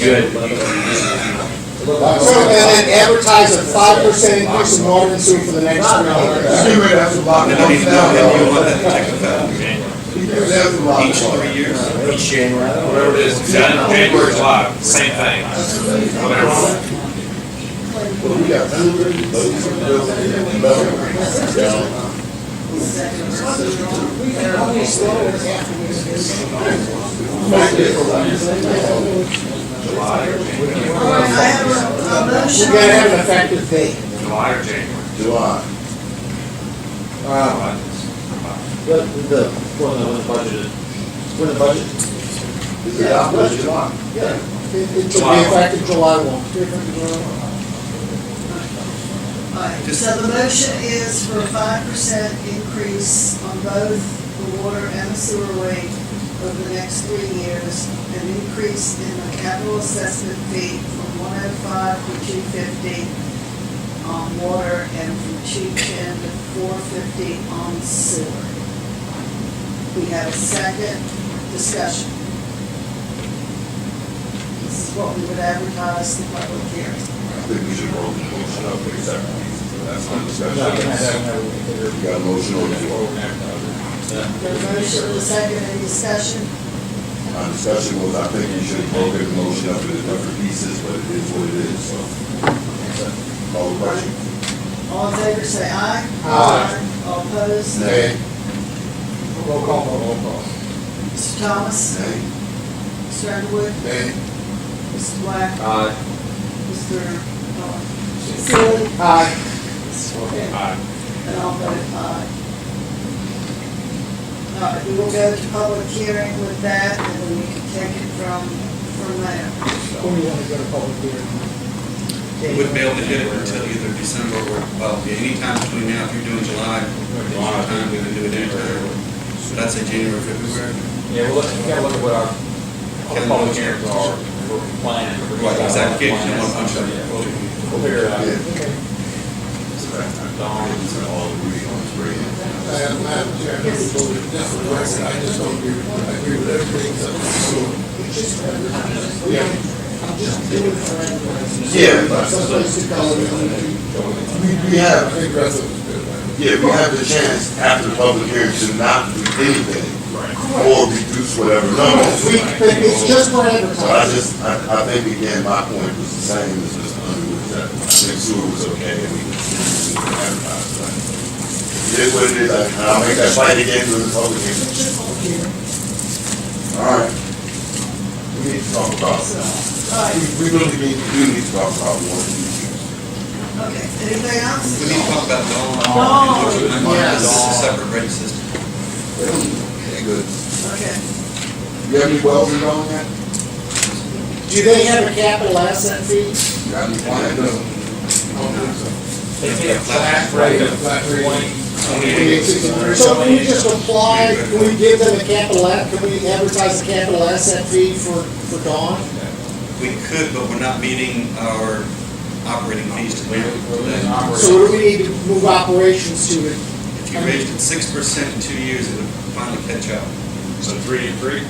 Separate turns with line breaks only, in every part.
good.
So, and then advertise a five percent increase in water and sewer for the next three years.
Anyway, that's a lot.
And I need to know that you want that to take effect
That's a lot.
each three years. Each January.
Whatever it is, Jan- January, July, same thing. Whatever.
We got
I have a- a
You
motion.
gotta have an effective date.
July or January.
July.
July.
What, the, when the budget, when the budget?
Is it our budget? July.
Yeah. It, it should be effective July one.
All right, So the motion is for a five percent increase on both the water and the sewer rate over the next three years, an increase in the capital assessment fee from one oh five to two fifty on water and from two ten to four fifty on sewer. We have a second discussion. This is what we would advertise the public hearing.
I think we should roll the motion up for executive. That's my discussion.
Well,
We got a motion on the floor.
The motion, the second, any discussion?
My discussion was, I think we should have broken the motion up into different pieces, but it is what it is, so. Call the question.
All in favor, say aye.
Aye.
All opposed?
Nay.
Roll call, roll call.
Mr. Thomas?
Nay.
Mr. Underwood?
Nay.
Mr. Black? uh,
Aye.
Mr. Miller? Sealy?
Aye.
Aye.
And I'll vote aye. All right, we will go to public hearing with that, and then we can take it from, from there.
When you wanna go to public hearing?
Wouldn't be able to hit it until either December or, well, anytime between now, if you're doing July, it's your time, we can do it anytime. So that's a January, February.
Yeah, well, we gotta look at what our, our public hearings are, we're planning.
Right, exactly. Can't do one punch up.
Yeah, We'll we'll figure it out.
Yeah.
Dawn,
All agree on it's great. Yeah, but- we, we have, yeah, we have the chance after the public hearing to not do anything. Or reduce whatever numbers.
We, but it's just for
So I
advertising.
just, I, I think again, my point was the same as Mr. Underwood, that I think sewer was okay and we could continue to advertise that. It is what it is, I- I'll make that fight again with the public hearing. All right. We need to talk about,
So,
we,
all right,
we really need, we need to talk about one of these issues.
okay, anything else?
We need to talk about Dawn.
Dawn,
This is a separate rate system.
Okay, good.
Okay.
You have any wells in on that?
Do they have a capital asset fee?
You got any plans?
They take a flat rate of twenty,
So can we just apply, can we give them a capital, a- can we advertise a capital asset fee for, for Dawn?
We could, but we're not meeting our operating fees to today.
So what do we need to move operations to?
If you raised it six percent in two years, it would finally catch up.
So three and three?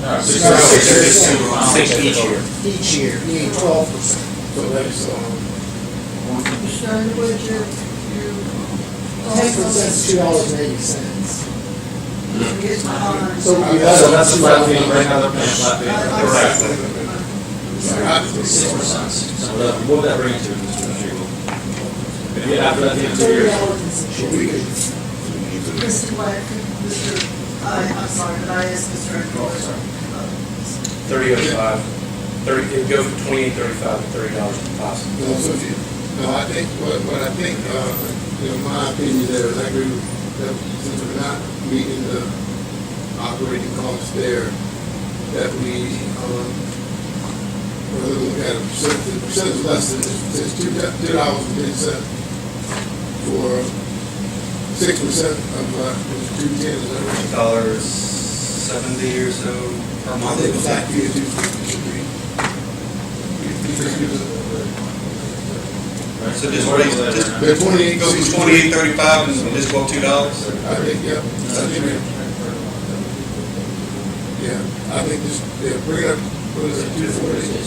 No, six
No,
percent.
six percent.
Six each year.
Each year, you need twelve percent.
Mr. Underwood, your, your.
Ten percent's two dollars and eighty cents.
Here's my honor.
So we
So that's a flat fee, right now they're paying a flat fee.
Correct.
Six percent. So that- what would that bring you to, Mr. Mashiko? If you have that in two
Thirty
years,
dollars and six.
Mr. Black, Mr., I, uh, I'm sorry, but I asked Mr. Underwood.
thirty oh five, thirty, it'd go from twenty-eight thirty-five to thirty dollars and five cents.
No, so if you- no, I think, what, what I think, uh, you know, my opinion there is I agree with, that since we're not meeting the operating costs there, that we, um, we're gonna look at a percent, the percent is less than, it's two, two dollars and ten cents for six percent of, uh, two ten, is that right?
Dollars seventy or so per
I think it's
month.
like you do, you should be. You just give us-
So just raise, just
They're twenty-eight.
go from twenty-eight thirty-five and just go up two dollars?
I think, yeah, I think, yeah, I think this, yeah, bring it up, what is it, two forty?